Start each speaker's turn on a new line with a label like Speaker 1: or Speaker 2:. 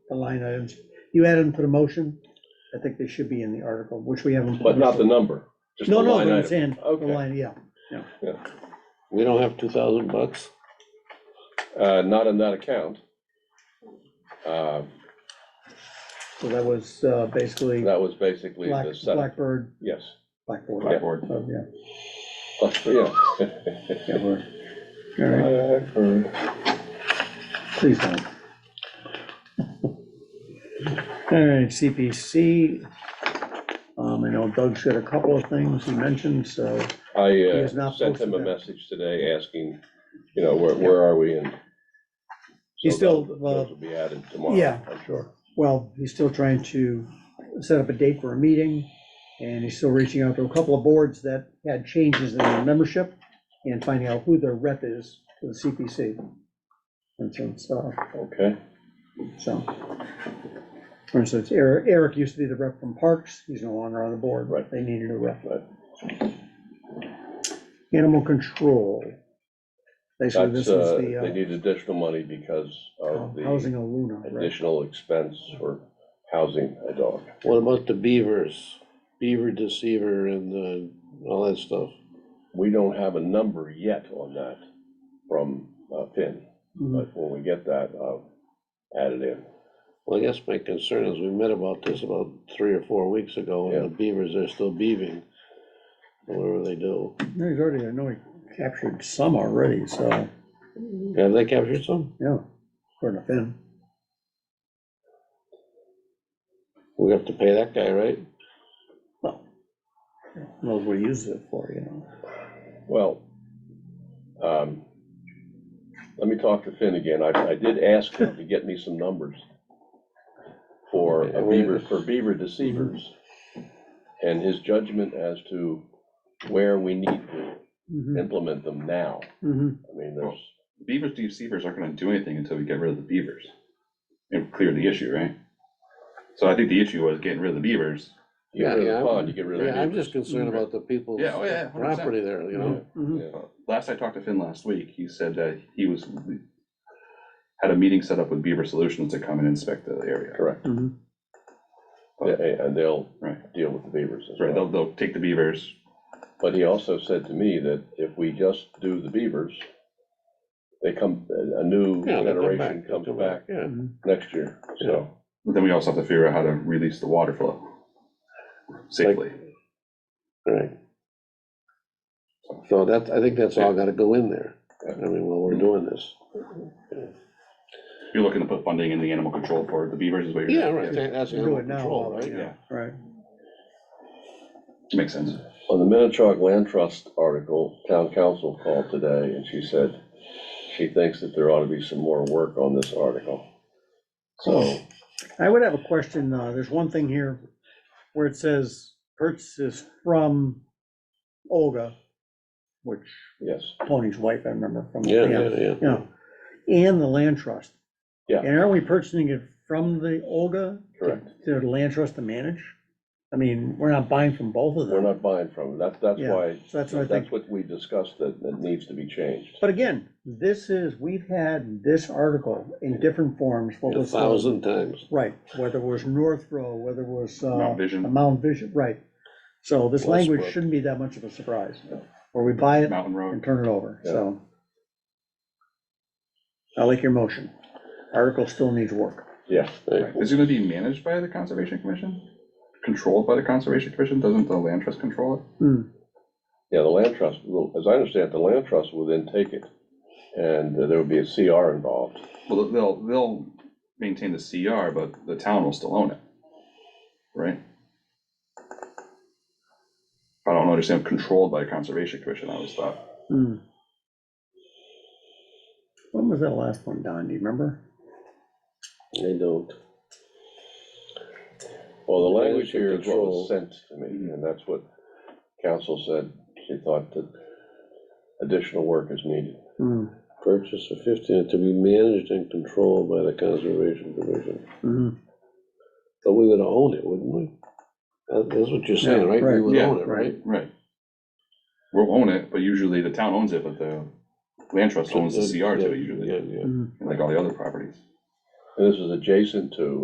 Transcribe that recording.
Speaker 1: the line items. You add them to the motion, I think they should be in the article, which we haven't.
Speaker 2: but not the number, just the
Speaker 1: No, no,
Speaker 2: line
Speaker 1: but it's
Speaker 2: item.
Speaker 1: in, the
Speaker 2: Okay.
Speaker 1: line, yeah.
Speaker 3: We don't have two thousand bucks?
Speaker 2: Uh, Not in that account. Uh,
Speaker 1: So that was uh, basically
Speaker 2: That was basically
Speaker 1: Black,
Speaker 2: the setup,
Speaker 1: Blackbird,
Speaker 2: yes.
Speaker 1: Blackboard,
Speaker 2: Blackboard.
Speaker 1: oh, yeah,
Speaker 2: Uh, yeah.
Speaker 1: yeah, we're, all right,
Speaker 2: Uh,
Speaker 1: please don't. All right, CPC, um, I know Doug said a couple of things he mentioned, so,
Speaker 2: I
Speaker 1: He has
Speaker 2: uh,
Speaker 1: not
Speaker 2: sent him
Speaker 1: posted
Speaker 2: a
Speaker 1: that.
Speaker 2: message today asking, you know, where, where are we and.
Speaker 1: He's
Speaker 2: so
Speaker 1: still,
Speaker 2: those-
Speaker 1: uh,
Speaker 2: Those will be added tomorrow.
Speaker 1: yeah.
Speaker 2: I'm sure.
Speaker 1: well, he's still trying to set up a date for a meeting, and he's still reaching out to a couple of boards that had changes in their membership, and finding out who their rep is to the CPC. And so, it's, uh,
Speaker 2: Okay,
Speaker 1: So, for instance, Eric, Eric used to be the rep from Parks, he's no longer on the board,
Speaker 2: Right.
Speaker 1: they needed a rep.
Speaker 2: Right.
Speaker 1: Animal control. Basically, this
Speaker 2: that's,
Speaker 1: is
Speaker 2: uh, they
Speaker 1: the
Speaker 2: need additional money because
Speaker 1: uh,
Speaker 2: of the
Speaker 1: housing of Luna, right?
Speaker 2: additional expense for housing a dog.
Speaker 3: What about the beavers? Beaver deceiver and uh all that stuff?
Speaker 2: We don't have a number yet on that from uh, Finn,
Speaker 1: Mhm.
Speaker 2: but when we get that, I'll add it in.
Speaker 3: Well, I guess my concern is we met about this about three or four weeks ago and the beavers are still beaving. Whatever they do.
Speaker 1: No, He's already, I know he captured some already, so,
Speaker 3: Have they captured some?
Speaker 1: yeah, according to Finn.
Speaker 3: We have to pay that guy, right?
Speaker 1: Knows what he uses it for, you know.
Speaker 2: Well, um, let me talk to Finn again. I, I did ask him to get me some numbers for a beaver, for beaver deceivers and his judgment as to where we need to Mm-hmm,
Speaker 1: Mhm,
Speaker 2: implement them now.
Speaker 1: mhm.
Speaker 2: I mean, there's,
Speaker 4: Beavers deceivers aren't gonna do anything until we get rid of the beavers. And clear the issue, right? So I think the issue was getting rid of the beavers.
Speaker 2: you get rid of the pond, you get rid of
Speaker 3: Yeah,
Speaker 2: the
Speaker 3: I'm
Speaker 2: beavers.
Speaker 3: just concerned about the people's
Speaker 4: Yeah, oh, yeah, 100%.
Speaker 3: property there, you know?
Speaker 1: Mhm.
Speaker 2: Yeah.
Speaker 4: Last I talked to Finn last week, he said that he was, had a meeting set up with Beaver Solutions to come and inspect the area.
Speaker 2: Correct.
Speaker 1: Mhm.
Speaker 2: Yeah, And they'll
Speaker 4: Right.
Speaker 2: deal with the beavers as
Speaker 4: Right,
Speaker 2: well.
Speaker 4: they'll, they'll take the beavers,
Speaker 2: But he also said to me that if we just do the beavers, they come, a a new
Speaker 3: Yeah, they'll come back,
Speaker 2: generation
Speaker 3: they'll
Speaker 2: comes
Speaker 3: come
Speaker 2: back
Speaker 3: Yeah.
Speaker 2: next year, so.
Speaker 4: but then we also have to figure out how to release the water flow safely.
Speaker 3: Right. So that's, I think that's all gotta go in there, I mean, while we're doing this.
Speaker 4: You're looking to put funding in the animal control for the beavers is what you're.
Speaker 3: Yeah, right, that- that's
Speaker 1: Do
Speaker 3: animal
Speaker 1: it now,
Speaker 3: control,
Speaker 1: all right.
Speaker 3: right?
Speaker 4: Yeah,
Speaker 1: Right,
Speaker 4: makes sense.
Speaker 2: On the Minnetrog Land Trust article, town council called today, and she said she thinks that there ought to be some more work on this article. So,
Speaker 1: I would have a question, uh, there's one thing here where it says purchases from Olga, which
Speaker 2: yes,
Speaker 1: Tony's wife, I remember from.
Speaker 3: Yeah, yeah, yeah.
Speaker 1: Yeah, and the land trust.
Speaker 2: Yeah.
Speaker 1: And aren't we purchasing it from the Olga? to-
Speaker 2: Correct.
Speaker 1: To the land trust to manage? I mean, we're not buying from both of them.
Speaker 2: we're not buying from, them. that's, that's
Speaker 1: Yeah,
Speaker 2: why,
Speaker 1: So that's what I
Speaker 2: that's
Speaker 1: think.
Speaker 2: what we discussed that, that needs to be changed.
Speaker 1: But again, this is, we've had this article in different forms. what
Speaker 3: A
Speaker 1: was the-
Speaker 3: thousand times,
Speaker 1: Right, whether it was North Row, whether it was. uh,
Speaker 4: Mount Vision.
Speaker 1: the Mount Vision, right. So this language
Speaker 2: Westbrook.
Speaker 1: shouldn't be that much of a surprise, or we buy it
Speaker 4: Mountain
Speaker 1: and
Speaker 4: Road,
Speaker 1: turn it over,
Speaker 2: Yeah.
Speaker 1: so. I like your motion. Article still needs work.
Speaker 2: Yeah,
Speaker 4: right. is it gonna be managed by the Conservation Commission? Controlled by the Conservation Commission? Doesn't the land trust control it?
Speaker 1: Hmm,
Speaker 2: yeah, the land trust, will- as I understand, it, the land trust will then take it, and uh, there would be a CR involved.
Speaker 4: Well, they'll, they'll maintain the CR, but the town will still own it, right? I don't understand, controlled by Conservation Commission, I always thought.
Speaker 1: hmm. When was that last one, Don, do you remember?
Speaker 3: they don't.
Speaker 2: Well, the language
Speaker 3: Language and
Speaker 2: here is Mm-hmm. what
Speaker 3: control.
Speaker 2: was sent to me, and that's what council said, she thought that additional work is needed.
Speaker 1: Hmm,
Speaker 3: Purchase of fifteen to be managed and controlled by the Conservation Commission.
Speaker 1: hmm.
Speaker 3: But we would own it, wouldn't we? That- That's what you're saying,
Speaker 1: Yeah,
Speaker 3: right?
Speaker 1: right.
Speaker 3: We would
Speaker 4: Yeah,
Speaker 3: own it,
Speaker 1: right.
Speaker 3: right?
Speaker 4: Right. We'll own it, but usually the town owns it, but the land trust owns the CR to it usually,
Speaker 3: Yeah, yeah.
Speaker 4: like all the other properties.
Speaker 2: And this is adjacent to